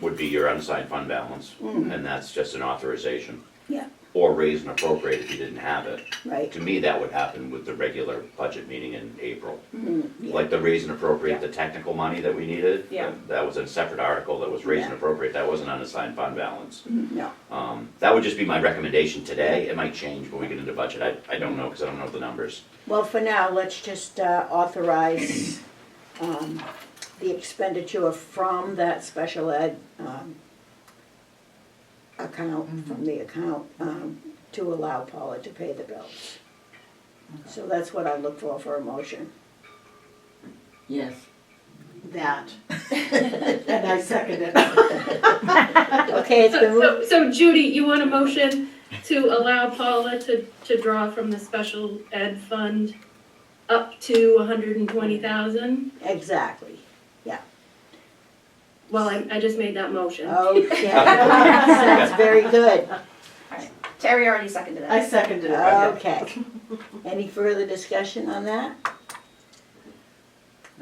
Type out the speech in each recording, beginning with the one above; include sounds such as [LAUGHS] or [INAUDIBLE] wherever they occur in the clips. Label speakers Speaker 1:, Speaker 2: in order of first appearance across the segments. Speaker 1: would be your unassigned fund balance, and that's just an authorization,
Speaker 2: Hmm. yeah,
Speaker 1: or raise and appropriate if you didn't have it.
Speaker 2: right,
Speaker 1: To me, that would happen with the regular budget meeting in April.
Speaker 2: Hmm, yeah.
Speaker 1: Like the raise and appropriate,
Speaker 3: Yeah.
Speaker 1: the technical money that we needed. uh,
Speaker 3: Yeah.
Speaker 1: That was a separate article that was raise and
Speaker 2: Yeah. Hmm.
Speaker 1: appropriate, that wasn't unassigned fund balance.
Speaker 2: no,
Speaker 1: Um, that would just be my recommendation today, it might change when we get into budget, I, I don't know, cause I don't know the numbers.
Speaker 2: well, for now, let's just uh, authorize um, the expenditure from that special ed um,
Speaker 4: Mm-hmm.
Speaker 2: account, from the account, um, to allow Paula to pay the bills. So that's what I look for, for a motion,
Speaker 4: Yes.
Speaker 2: that. [LAUGHS]
Speaker 4: And I second it.
Speaker 2: Okay, it's been
Speaker 5: So,
Speaker 2: moved,
Speaker 5: so Judy, you want a motion to allow Paula to, to draw from the special ed fund up to a hundred and twenty thousand?
Speaker 2: exactly,
Speaker 5: Well, I, I just made that motion.
Speaker 2: okay, [LAUGHS] that's very good.
Speaker 3: Terry already seconded
Speaker 4: I
Speaker 3: that.
Speaker 4: seconded it.
Speaker 2: Okay. Any further discussion on that?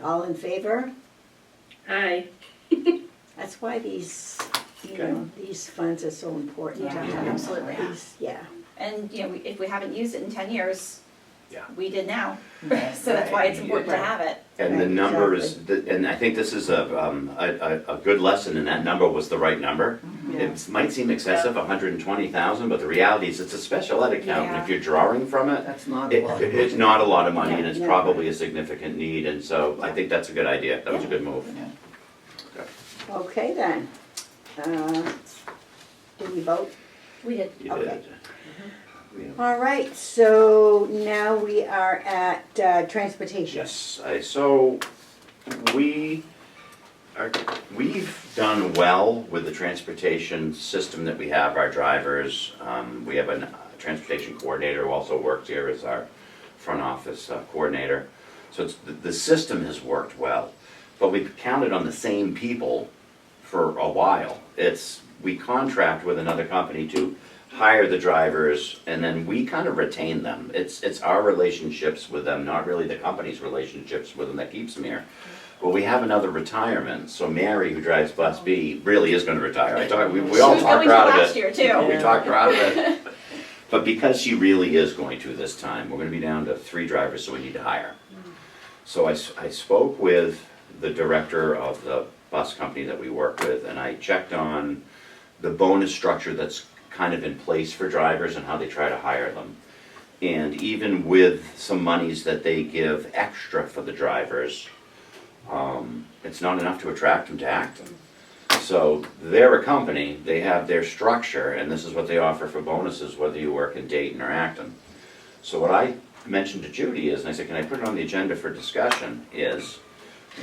Speaker 2: All in favor?
Speaker 5: Aye.
Speaker 2: That's why these, you know, these funds are so important. to
Speaker 3: Yeah,
Speaker 2: have.
Speaker 3: absolutely.
Speaker 2: These- Yeah,
Speaker 3: And, you know, we- if we haven't used it in ten years,
Speaker 1: Yeah.
Speaker 3: we did now.
Speaker 4: Right,
Speaker 3: [LAUGHS] So that's why it's
Speaker 1: right,
Speaker 3: important to
Speaker 4: right.
Speaker 3: have it.
Speaker 1: And the
Speaker 2: Right,
Speaker 1: number is, th- and I think this is a, um, a, a, a good lesson, and that number was the right number. It might seem excessive, hundred and twenty thousand, but the reality is, it's a special ed account, and if
Speaker 3: Yeah.
Speaker 1: you're drawing from it,
Speaker 4: That's not a
Speaker 1: it,
Speaker 4: lot.
Speaker 1: it's not a lot of money, and it's
Speaker 2: Yeah.
Speaker 1: probably a significant need, and so I think that's a good idea, that was a good move.
Speaker 2: okay then. Uh, Did we vote?
Speaker 3: We did.
Speaker 1: You
Speaker 2: Okay.
Speaker 1: did. Yeah.
Speaker 2: All right, so now we are at uh, transportation.
Speaker 1: Yes, I, so, we are, we've done well with the transportation system that we have, our drivers. Um, we have a uh, transportation coordinator who also works here as our front office uh, coordinator. So it's, the, the system has worked well, but we've counted on the same people for a while. It's, we contract with another company to hire the drivers and then we kind of retain them. It's, it's our relationships with them, not really the company's relationships with them that keeps them here. But we have another retirement, so Mary, who drives Bus B, really is gonna retire. I talked, we, we
Speaker 3: She
Speaker 1: all
Speaker 3: was
Speaker 1: talked
Speaker 3: going
Speaker 1: her
Speaker 3: to
Speaker 1: out of it.
Speaker 3: last year too.
Speaker 1: We talked her out of it. But because she really is going to this time, we're gonna be down to three drivers, so we need to hire. So I, s- I spoke with the director of the bus company that we work with, and I checked on the bonus structure that's kind of in place for drivers and how they try to hire them. And even with some monies that they give extra for the drivers, um, it's not enough to attract them to Acton. So they're a company, they have their structure, and this is what they offer for bonuses, whether you work in Dayton or Acton. So what I mentioned to Judy is, and I said, can I put it on the agenda for discussion, is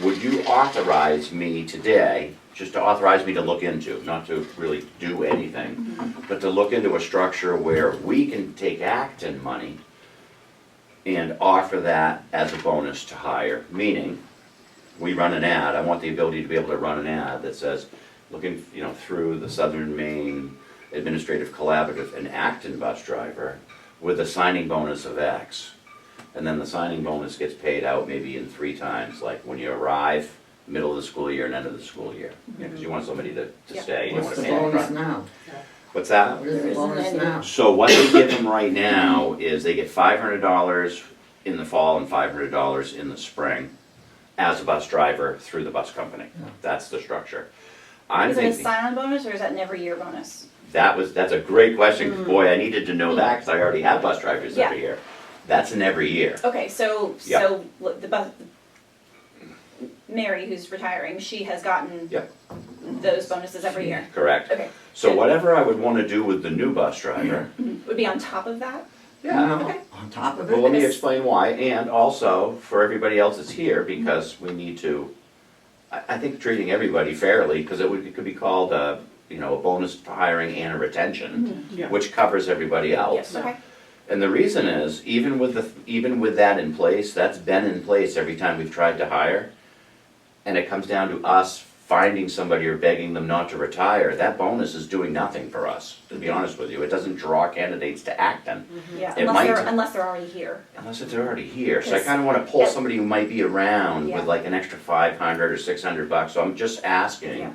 Speaker 1: would you authorize me today, just to authorize me to look into, not to really do anything, but to look into a structure where we can take Acton money and offer that as a bonus to hire, meaning we run an ad, I want the ability to be able to run an ad that says, looking, you know, through the Southern Maine Administrative Collaborative, an Acton bus driver with a signing bonus of X. And then the signing bonus gets paid out maybe in three times, like when you arrive, middle of the school year and end of the school year. Because you want somebody to, to
Speaker 3: Yeah.
Speaker 1: stay, you don't want
Speaker 4: What's
Speaker 1: to
Speaker 4: the
Speaker 1: pay upfront.
Speaker 4: bonus now?
Speaker 1: What's that?
Speaker 4: What is the
Speaker 2: There isn't
Speaker 4: bonus
Speaker 2: any.
Speaker 4: now?
Speaker 1: So what they give them right now is they get five hundred dollars in the fall and five hundred dollars in the spring as a bus driver through the bus company. That's the structure. I'm
Speaker 3: Is it a
Speaker 1: thinking,
Speaker 3: sign-on bonus or is that an every year bonus?
Speaker 1: that was, that's a great question. Boy, I needed to know that because I already have bus drivers every
Speaker 3: Hmm. Yeah.
Speaker 1: year. That's an every year.
Speaker 3: Okay, so,
Speaker 1: Yeah.
Speaker 3: so l- the bu- Mary, who's retiring, she has gotten
Speaker 1: Yeah.
Speaker 3: those bonuses every year.
Speaker 1: Correct.
Speaker 3: Okay,
Speaker 1: So whatever I would want to do with the new bus driver,
Speaker 3: would be on top of that?
Speaker 1: yeah,
Speaker 4: No,
Speaker 3: Okay.
Speaker 4: On top of
Speaker 1: Well, let
Speaker 4: it?
Speaker 1: me
Speaker 3: Yes.
Speaker 1: explain why, and also for everybody else that's here, because we need to, I, I think treating everybody fairly, because it would, it could be called a, you know, a bonus for hiring and a retention,
Speaker 4: Yeah.
Speaker 1: which covers everybody else.
Speaker 3: Okay,
Speaker 1: And the reason is, even with the, even with that in place, that's been in place every time we've tried to hire. And it comes down to us finding somebody or begging them not to retire, that bonus is doing nothing for us, to be honest with you, it doesn't draw candidates to Acton.
Speaker 4: Mm-hmm.
Speaker 3: yeah,
Speaker 1: It
Speaker 3: unless
Speaker 1: might-
Speaker 3: they're, unless they're already here.
Speaker 1: Unless it's already here, so I
Speaker 3: Yes.
Speaker 1: kinda wanna pull
Speaker 3: Yeah.
Speaker 1: somebody who might be around
Speaker 3: Yeah.
Speaker 1: with like an extra five hundred or six hundred bucks, so I'm just asking.
Speaker 3: Yeah.